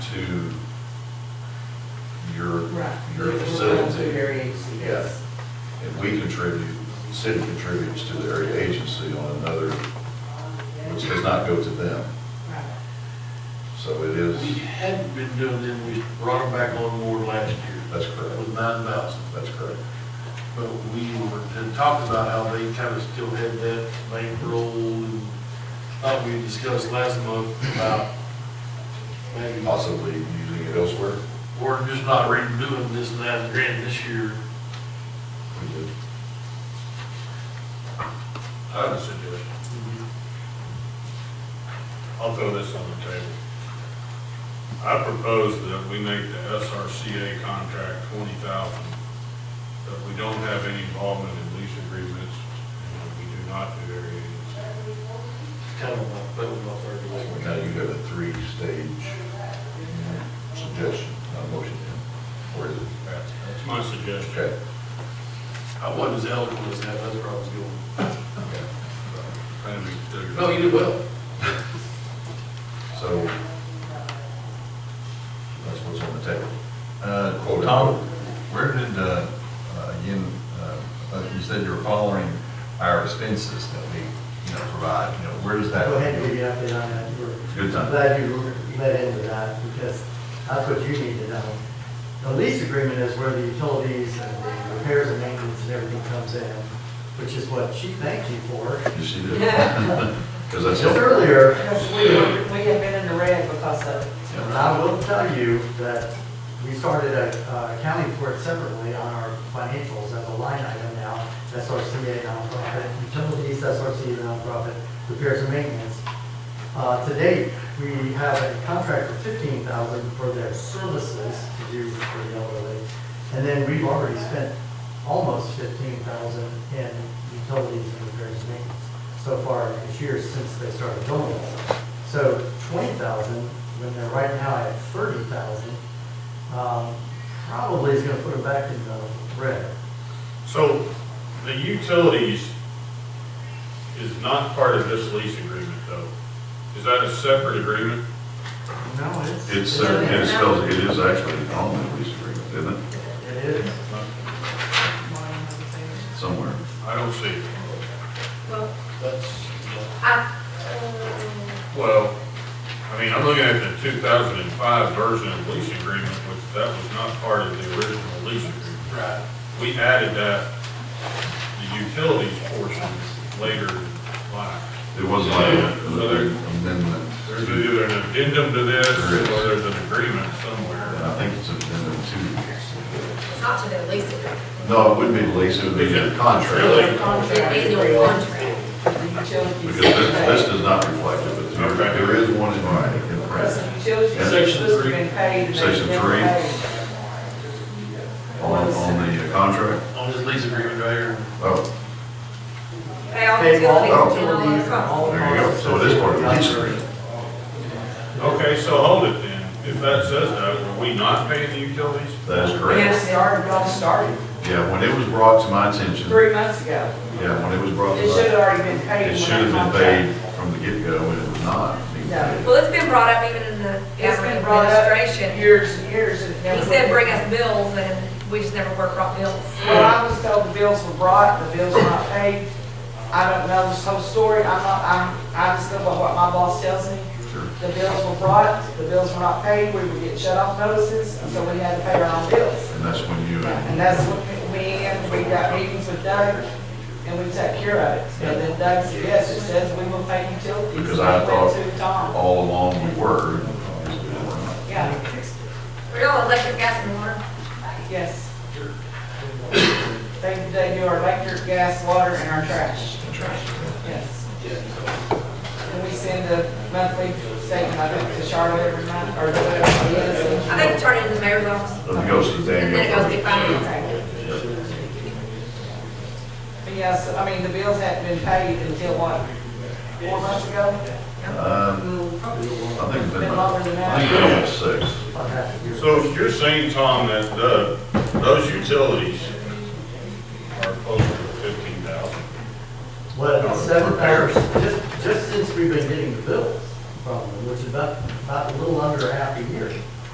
to your, Right. your Your facility. agency, Yeah. yes. And we contribute, the city contributes to their agency on another, which does not go to them. Right. So it is, We hadn't been doing them, we brought them back on board last year that's correct, with nine thousand. that's correct. But we were, and talked about how they kind of still had that bankroll and thought we discussed last month about maybe, Possibly using it elsewhere. we're just not redoing this and that grant this year. We did. I have a suggestion. I'll throw this on the table. I propose that we make the SRCA contract twenty thousand, that we don't have any involvement in lease agreements, and that we do not do area agency. Kind of like, that was my third one. Now you have a three-stage suggestion, not motion, or is it? That's that's my suggestion. Okay. I wasn't as eloquent as that, that's where I was going. Kind of be clear. No, you did well. So that's what's on the table. Uh, Well, Tom, where did, uh, uh, again, uh, uh, you said you were following our expenses that we, you know, provide, you know, where does that? Go ahead and give you an update on that. We're- Good time. I'm glad you led into that because that's what you need to know. The lease agreement is where the utilities and the repairs and maintenance and everything comes in, which is what she thanked you for. You see that? Because that's. Just earlier, Because we, were- we have been in the red because of, and I will tell you that we started uh, uh, accounting for it separately on our financials as a line item now. SRCA nonprofit, utilities, SRCA nonprofit, repairs and maintenance. Uh, To date, we have a contract for fifteen thousand for their services to do for the elderly. And then we've already spent almost fifteen thousand in utilities and repairs and maintenance so far this year since they started doing this. So twenty thousand, when they're right now at thirty thousand, um, probably is gonna put them back in the red. So the utilities is not part of this lease agreement, though. Is that a separate agreement? No, it's. It's, uh, it spells, it is actually on the lease agreement, isn't it? It is. Somewhere. I don't see it. Well, That's, I, um, Well, I mean, I'm looking at the 2005 version of lease agreement, which that was not part of the original lease agreement. right. We added that, the utilities portion later in life. It was like an amendment. There's to- either an addendum to this, or there's an agreement somewhere. I think it's an amendment to. it's not to their lease agreement. No, it wouldn't be the lease, it would be the Really? contract. Their annual contract. the utilities. Because this, this does not reflect it, but there- Okay. there is one in writing in Because print. the utilities Yeah. are Section supposed to three. have been paid. and they've Section never three. paid. On, on the contract? On this lease agreement right here. Oh, Pay all Pay all utilities and all utilities their and costs. all. there you go. So it is part of the lease agreement. Okay, so hold it then. If that says that, were we not paying the utilities? That is correct. Yes, they already got started Yeah, when it was brought to my attention, three months ago. yeah, when it was brought to It should have my, already been paid. it when should have I been contract- paid from the get-go, and it was not. being No. paid. Well, it's been brought up even in the It's government been brought up administration. years and years and it never. He said, bring us bills, and we just never work out bills. Well, I was told the bills were brought, the bills were not paid. I don't know this whole story. I'm not, I'm, I just go by what my boss tells me. Sure. The bills were brought, the bills were not paid, we were getting shut off notices, and so we had to pay our own bills. And that's when you, And that's what we, and we got meetings with Doug, and we took care of it. And then Doug said, yes, it says we will pay utilities. Because I thought- Went to Tom. all along we were, and obviously we were not. Yeah, We're all electric, gas, and water. yes. They, they do our electric, gas, water, and our trash. Yes. And we send a monthly statement, I think, to Charlotte every month, or whatever it is. I think turn it into the mayor's office, Let me go see and then it goes Daniel. to finance. But yes, I mean, the bills hadn't been paid until what, four months ago? Um, I think it's been, Been longer than I that. think it's been six. I'll have to do it. So you're saying, Tom, that the, those utilities are closer to fifteen thousand? Well, For seven repairs. thousand, just, just since we've been getting the bills from them, which is about, about a little under half a year.